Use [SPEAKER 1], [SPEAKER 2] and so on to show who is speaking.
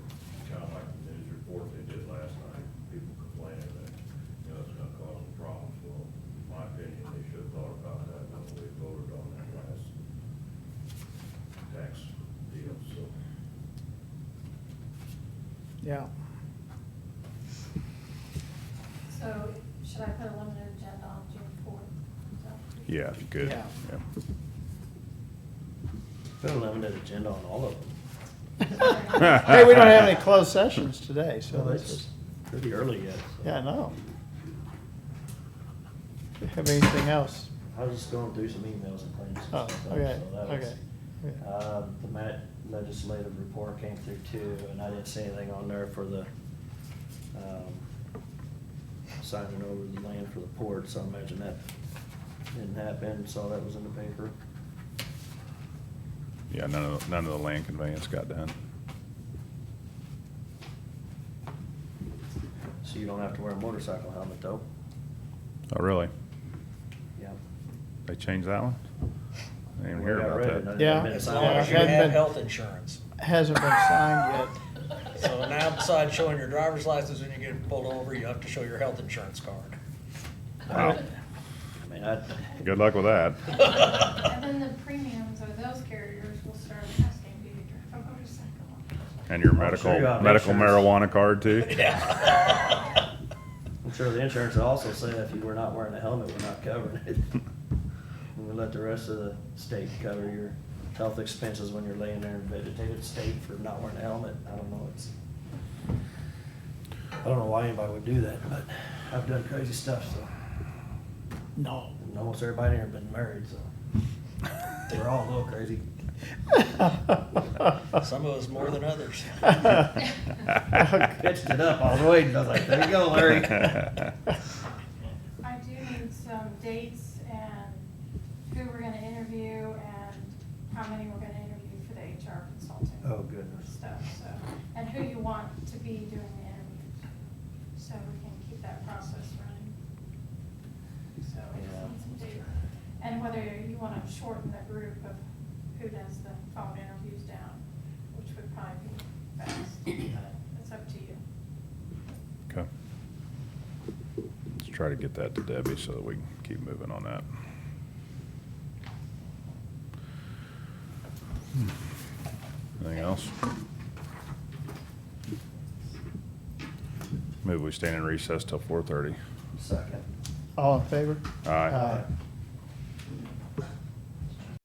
[SPEAKER 1] yeah.
[SPEAKER 2] So should I put a limited agenda on June fourth?
[SPEAKER 3] Yeah, if you could.
[SPEAKER 1] Yeah.
[SPEAKER 4] Put a limited agenda on all of them.
[SPEAKER 1] Hey, we don't have any closed sessions today, so
[SPEAKER 4] So
[SPEAKER 1] this is,
[SPEAKER 4] it's pretty early yet. so.
[SPEAKER 1] yeah, no. Do you Have anything else?
[SPEAKER 4] I was just going through some emails and things. and
[SPEAKER 1] Oh,
[SPEAKER 4] stuff,
[SPEAKER 1] okay,
[SPEAKER 4] so that was-
[SPEAKER 1] okay. yeah.
[SPEAKER 4] Um, The Met legislative report came through too, and I didn't see anything on there for the, um, signing over the land for the port, so I imagine that didn't happen, saw that was in the paper.
[SPEAKER 3] Yeah, none of, none of the land conveyance got done.
[SPEAKER 4] So you don't have to wear a motorcycle helmet though.
[SPEAKER 3] Oh, really?
[SPEAKER 4] Yeah.
[SPEAKER 3] They changed that one? I didn't even hear
[SPEAKER 4] Yeah, I
[SPEAKER 3] about
[SPEAKER 4] read it,
[SPEAKER 3] that.
[SPEAKER 4] and
[SPEAKER 1] Yeah.
[SPEAKER 4] I didn't
[SPEAKER 5] As
[SPEAKER 4] sign
[SPEAKER 5] long as you
[SPEAKER 4] it.
[SPEAKER 1] Yeah.
[SPEAKER 5] have health insurance.
[SPEAKER 1] Hasn't been signed yet.
[SPEAKER 5] So now besides showing your driver's license when you get pulled over, you have to show your health insurance card.
[SPEAKER 3] Wow.
[SPEAKER 4] I mean, I,
[SPEAKER 3] Good luck with that.
[SPEAKER 2] And then the premiums of those carriers will start asking you to drive oh, a motorcycle.
[SPEAKER 3] And your
[SPEAKER 4] I'm sure
[SPEAKER 3] medical,
[SPEAKER 4] you have
[SPEAKER 3] medical
[SPEAKER 4] insurance.
[SPEAKER 3] marijuana card too?
[SPEAKER 5] Yeah.
[SPEAKER 4] I'm sure the insurance will also said if you were not wearing a helmet, we're not covering it. And we let the rest of the state cover your health expenses when you're laying there in vegetative state for not wearing a helmet. I don't know, it's, I don't know why anybody would do that, but I've done crazy stuff, so.
[SPEAKER 1] No.
[SPEAKER 4] And almost everybody here been married, so. We're all a little crazy.
[SPEAKER 5] Some of us more than others.
[SPEAKER 4] Pitched it up, I was waiting, I was like, there you go, Larry.
[SPEAKER 2] I do need some dates and who we're gonna interview and how many we're gonna interview for the HR consulting.
[SPEAKER 4] Oh, goodness.
[SPEAKER 2] Stuff, so, and who you want to be doing the interviews, so we can keep that process running. So we just need some dates, and whether you wanna shorten the group of who does the phone interviews down, which would probably be best, but it's up to you.
[SPEAKER 3] Okay. Let's try to get that to Debbie so that we can keep moving on that. Hmm. Anything else? Maybe we stand in recess till four thirty.
[SPEAKER 4] Second.
[SPEAKER 1] All in favor?
[SPEAKER 3] Aye.